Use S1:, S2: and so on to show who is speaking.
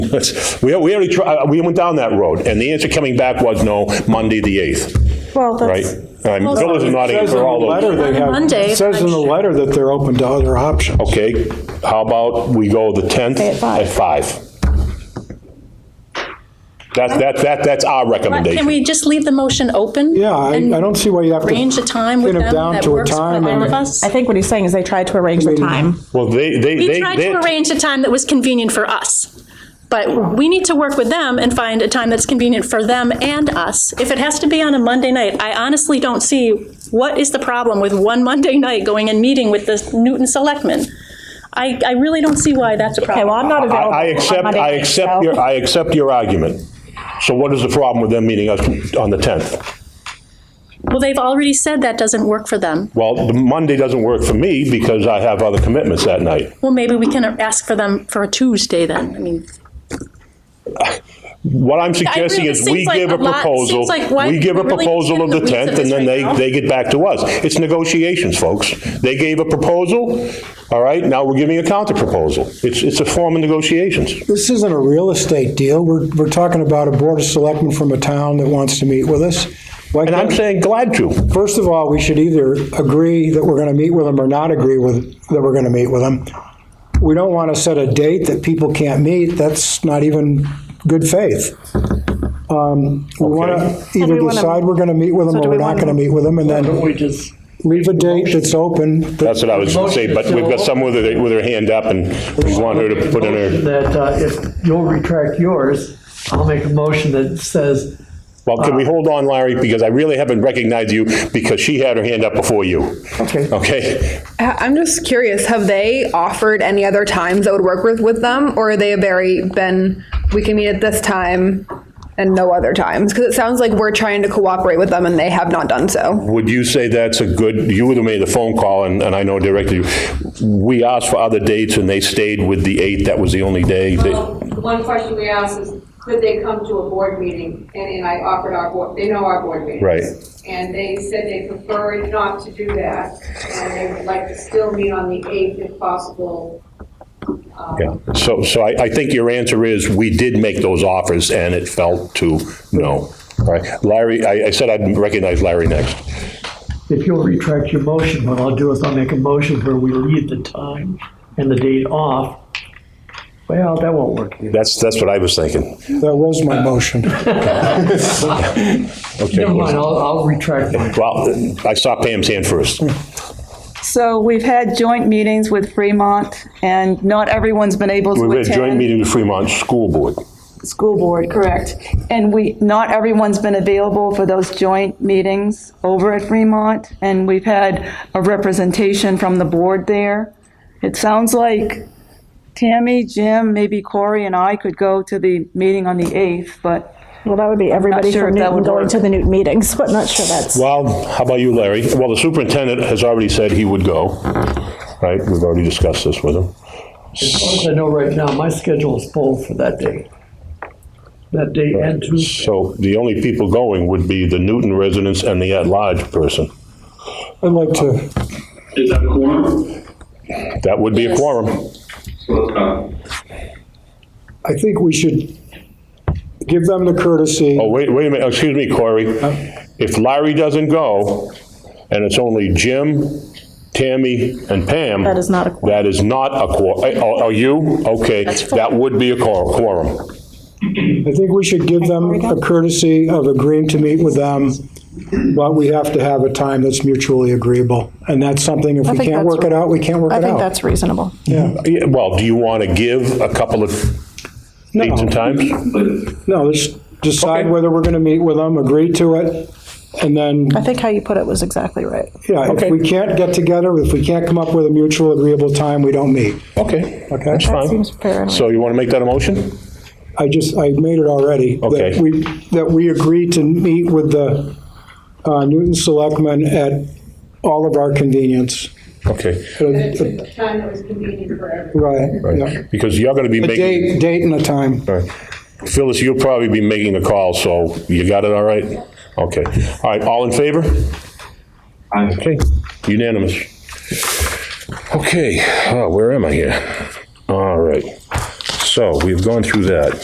S1: That's- We we already, tri- uh, we went down that road, and the answer coming back was no, Monday, the 8th,
S2: Well,
S1: right?
S2: that's,
S1: Um, Bill is nodding
S3: Says in
S1: for
S3: the
S1: all those.
S3: letter they have-
S4: Monday,
S3: it Says in the
S4: I'm-
S3: letter that they're open to other options.
S1: Okay, how about we go the 10th?
S2: Say at five.
S1: At 5. That, that, that, that's our
S4: Can
S1: recommendation.
S4: we just leave the motion open?
S3: Yeah, I,
S4: and
S3: I don't see why you have to.
S4: Range a time with
S3: pin
S4: them
S3: it down
S4: that
S3: to a
S4: works for
S3: time
S4: all
S3: and-
S4: of us?
S2: I think what he's saying is they tried to arrange the time.
S1: Well, they, they, they.
S4: We tried
S1: they-
S4: to arrange a time that was convenient for us, but we need to work with them and find a time that's convenient for them and us. If it has to be on a Monday night, I honestly don't see what is the problem with one Monday night going and meeting with the Newton Selectmen. I, I really don't see why that's a
S2: Okay, well,
S4: problem.
S2: I'm not
S1: I,
S2: available.
S1: I
S2: on
S1: accept,
S2: Monday
S1: I
S2: night,
S1: accept
S2: so-
S1: your, I accept your argument. So what is the problem with them meeting us on the 10th?
S4: Well, they've already said that doesn't work for them.
S1: Well, the Monday doesn't work for me because I have other commitments that night.
S4: Well, maybe we can ask for them for a Tuesday then. I mean,
S1: What I'm
S4: really-
S1: suggesting is
S4: it
S1: we
S4: seems like
S1: give a
S4: a lot-
S1: proposal,
S4: seems like why
S1: we give a
S4: we really
S1: proposal of
S4: can't
S1: the
S4: do the weeds
S1: 10th,
S4: of
S1: and
S4: this
S1: then
S4: right
S1: they,
S4: now.
S1: they get back to us. It's negotiations, folks. They gave a proposal, all right, now we're giving a counterproposal. It's, it's a form of negotiations.
S3: This isn't a real estate deal. We're, we're talking about a board of selectmen from a town that wants to meet with us. Why
S1: And I'm
S3: can't-
S1: saying glad to.
S3: First of all, we should either agree that we're going to meet with them or not agree with, that we're going to meet with them. We don't want to set a date that people can't meet. That's not even good faith. Um, We want to
S2: And
S3: either
S2: we wanna-
S3: decide we're going to meet with them
S2: So do
S3: or we're
S2: we
S3: not
S2: wanna-
S3: going to meet with them and then
S5: We just,
S3: leave a date that's open. that-
S1: That's what I was going to say, but we've got someone with her, with her hand up, and we want her to put in her,
S5: that uh, if you'll retract yours, I'll make a motion that says,
S1: well, can we hold on, Larry, because I really haven't recognized you, because she had her hand up before you.
S3: Okay.
S1: Okay?
S6: I- Uh, I'm just curious, have they offered any other times that would work with, with them? Or are they very been, we can meet at this time and no other times? Because it sounds like we're trying to cooperate with them and they have not done so.
S1: Would you say that's a good, you would have made the phone call, and, and I know directly, we asked for other dates, and they stayed with the 8th, that was the only day. that-
S7: Well, the one question we asked is, could they come to a board meeting? And, and I offered our board, they know our board meetings.
S1: Right.
S7: And they said they preferred not to do that, and they would like to still meet on the 8th if possible. Um,
S1: yeah. So, so I, I think your answer is, we did make those offers, and it fell to no. All right, Larry, I, I said I'd recognize Larry next.
S5: if you'll retract your motion, what I'll do is I'll make a motion where we leave the time and the date off. Well, that won't work either.
S1: That's, that's what I was thinking.
S3: That was my motion.
S1: Okay.
S5: Never mind, I'll, I'll retract mine.
S1: Well, I saw Pam's hand first.
S8: So we've had joint meetings with Fremont, and not everyone's been able to
S1: We had a joint
S8: attend.
S1: meeting with Fremont School Board.
S8: School board, correct. And we, not everyone's been available for those joint meetings over at Fremont, and we've had a representation from the board there. It sounds like Tammy, Jim, maybe Corey, and I could go to the meeting on the 8th, but
S2: Well, that would be everybody
S8: sure
S2: from
S8: if that
S2: Newton
S8: would
S2: going
S8: work.
S2: to the Newton meetings, but not sure that's.
S1: Well, how about you, Larry? Well, the superintendent has already said he would go, right? We've already discussed this with him.
S5: As long as I know right now, my schedule is full for that day. That day and Tuesday.
S1: So the only people going would be the Newton residents and the at-large person.
S3: I'd like to,
S9: Is that a quorum?
S1: That would be a quorum.
S9: So let's go.
S3: I think we should give them the courtesy.
S1: Oh, wait, wait a minute, excuse me, Corey. If Larry doesn't go, and it's only Jim, Tammy, and Pam.
S2: That is not a quorum.
S1: That is not a quorum. Oh, are you? Okay, that would be a quor- quorum. Oh.
S3: I think we should give them a courtesy of agreeing to meet with them, but we have to have a time that's mutually agreeable. And that's something, if we
S2: think
S3: can't
S2: that's-
S3: work it out, we can't work
S2: I
S3: it
S2: think
S3: out.
S2: that's reasonable.
S1: Yeah, Well, do you want to give a couple of dates and times?
S9: Please.
S3: No, let's decide
S1: Okay.
S3: whether we're going to meet with them, agree to it, and then,
S2: I think how you put it was exactly right.
S3: yeah, if
S1: Okay.
S3: we can't get together, if we can't come up with a mutual agreeable time, we don't meet.
S1: Okay,
S3: Okay.
S1: that's
S2: That
S1: fine.
S2: seems fair. and
S1: So you want to make that a motion?
S3: I just, I made it already.
S1: Okay.
S3: That we, that we agree to meet with the uh, Newton Selectmen at all of our convenience.
S1: Okay,
S7: It's a time that was convenient for everyone.
S3: Right, yeah.
S1: right, because you're going to be
S3: A
S1: making,
S3: date, date and a time.
S1: all right. Phyllis, you'll probably be making the call, so you got it all right? Okay, all right, all in favor?
S9: Aye.
S1: Okay, unanimous. uh, Okay, oh, where am I here? All right, so we've gone through that.